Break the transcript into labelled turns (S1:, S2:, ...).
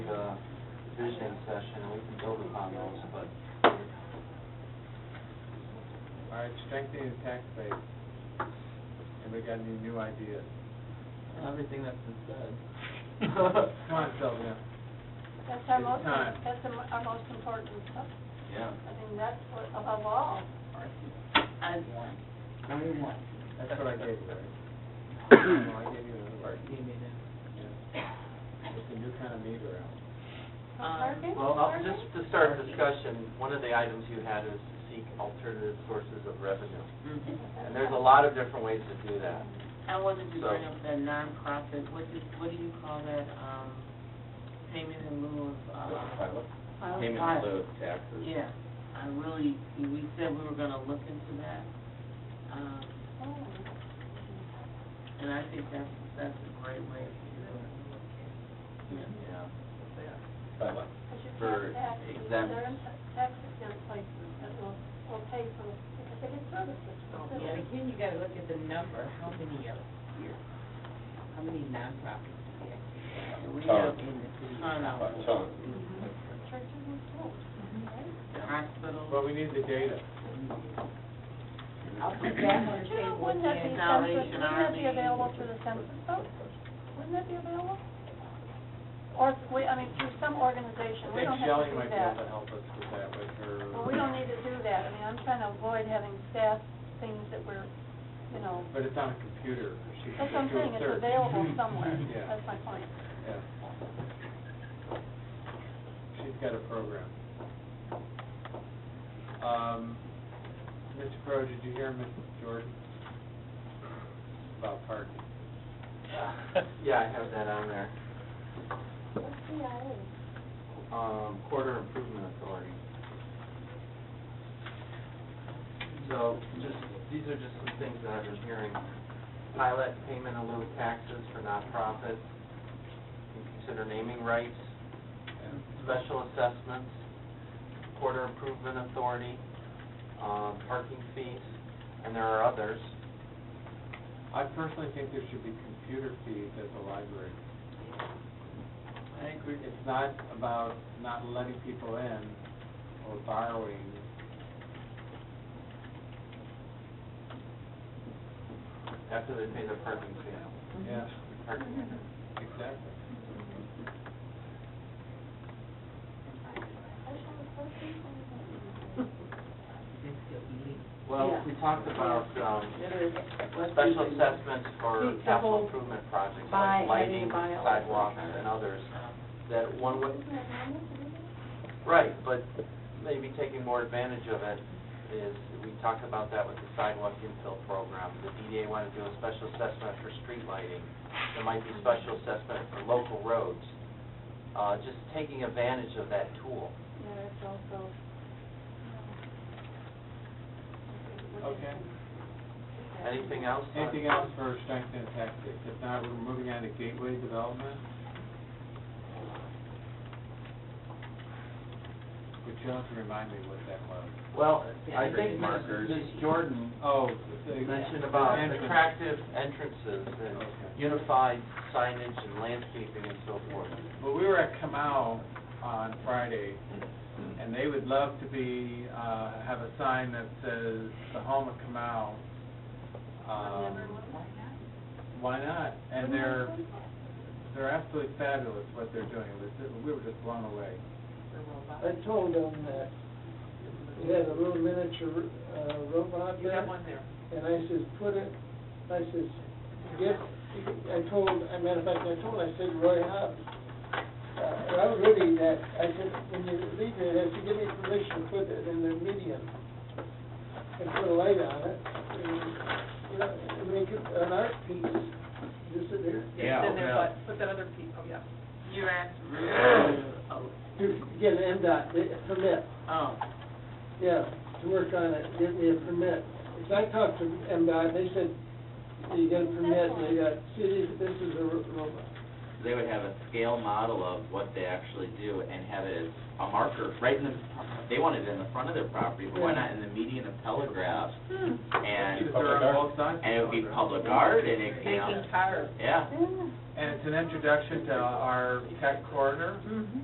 S1: visioning session, and we can build upon those, but
S2: All right, strengthening the tax base. Anybody got any new ideas?
S3: Everything that's been said.
S2: Come on, Sylvia.
S4: That's our
S2: It's
S4: most,
S2: time.
S4: that's the mo- our most important stuff.
S3: Yeah.
S4: I mean, that's what, above all.
S3: And one. Only one.
S2: That's what I gave you, Larry. No, I gave you the word.
S3: Give me that.
S2: Yeah. It's a new kind of meter out.
S4: Target,
S1: Um, Well, I'll-
S4: target?
S1: just to start discussion, one of the items you had is to seek alternative sources of revenue. And there's a lot of different ways to do that.
S5: I wanted to
S1: So-
S5: bring up that nonprofit, what do, what do you call that, um, payment in lieu of, uh? Pilot.
S6: Payment in lieu of taxes.
S5: Yeah, I really, we said we were gonna look into that, um,
S4: Oh,
S5: and I think that's, that's a great way to do it.
S6: Yeah. Five bucks.
S4: But you
S6: For
S4: can't tax, it.
S6: exempt.
S4: they're in tax exempt places that will, will pay for, because they get services.
S3: Yeah, again, you gotta look at the number, how many are here? How many nonprofits do we actually have?
S5: And we
S6: Ton.
S5: have in the city.
S6: A ton.
S4: Churches and schools, right?
S2: But
S5: Hospitals.
S2: we need the data.
S3: I'll put that on
S4: But
S3: the
S4: you know,
S3: table
S4: wouldn't that be
S3: again.
S5: Salvation
S4: census, wouldn't that be
S5: Army.
S4: available through the census though? Wouldn't that be available? Or, we, I mean, through some
S2: I
S4: organization, we
S2: think
S4: don't have
S2: Shelley
S4: to do
S2: might be
S4: that.
S2: able to help us with that with her.
S4: Well, we don't need to do that, I mean, I'm trying to avoid having staff things that we're, you know,
S2: But it's on a computer. She can
S4: that's what I'm
S2: just do a
S4: saying, it's
S2: search.
S4: available somewhere,
S2: Yeah.
S4: that's my point.
S2: Yeah. She's got a program. Um, Mr. Crowe, did you hear Ms. Jordan about parking?
S1: Yeah, I have that on there.
S4: What's CIA?
S1: Um, quarter improvement authority. So, just, these are just some things that I've been hearing. Pilot payment in lieu of taxes for nonprofits, You consider naming rights, special assessments, quarter improvement authority, um, parking fees, and there are others.
S2: I personally think there should be computer fees at the library. I think we- it's not about not letting people in or borrowing.
S1: After they pay their parking fee,
S2: Yeah,
S1: parking.
S2: exactly.
S1: Well, we talked about, um, special assessments for capital improvement projects like lighting, sidewalks, and others, that one would, right, but maybe taking more advantage of it is, we talked about that with the sidewalk infill program. The DDA wanted to do a special assessment for street lighting. There might be special assessment for local roads. Uh, just taking advantage of that tool.
S4: Yeah, it's also. um,
S2: Okay.
S1: Anything else? on-
S2: Anything else for strength and tactics? If not, we're moving on to gateway development. Would you have to remind me what that was?
S1: Well, I
S6: Yeah.
S1: think Ms.
S6: Markers.
S1: Ms. Jordan
S2: Oh.
S1: You mentioned about
S2: entrance.
S1: attractive entrances and
S2: Okay.
S1: unified signage and landscaping and so forth.
S2: Well, we were at Kamau on Friday, and they would love to be, uh, have a sign that says, "The Home of Kamau." Um, Why not? And they're, they're absolutely fabulous what they're doing. It was- We were just blown away.
S7: I told them that we had a little miniature uh, robot
S3: You
S7: there,
S3: have one there.
S7: and I says, put it, I says, get, I told, I matter of fact, I told, I said, Roy Hobbs, uh, I was ready that, I said, when you leave it, I said, give me permission to put it in the medium, and put a light on it, and, you know, and make it an art piece, disappear,
S2: Yeah,
S3: Then there's
S2: yeah.
S3: like, put that other piece, oh, yeah.
S5: You're asking, oh,
S7: to get an MDOT permit.
S5: oh,
S7: Yeah, to work on it, give me a permit. Because I talked to MDOT, they said, you get a permit, they got, see, this is a ro- robot.
S6: They would have a scale model of what they actually do and have it as a marker right in the, they want it in the front of their property, but why not in the median of telegraph? And,
S2: Because they're on both sides.
S6: and it would be public art and it, you know,
S3: Taking cars.
S4: Hmm.
S6: yeah.
S4: Yeah.
S2: And it's an introduction to our tech corridor.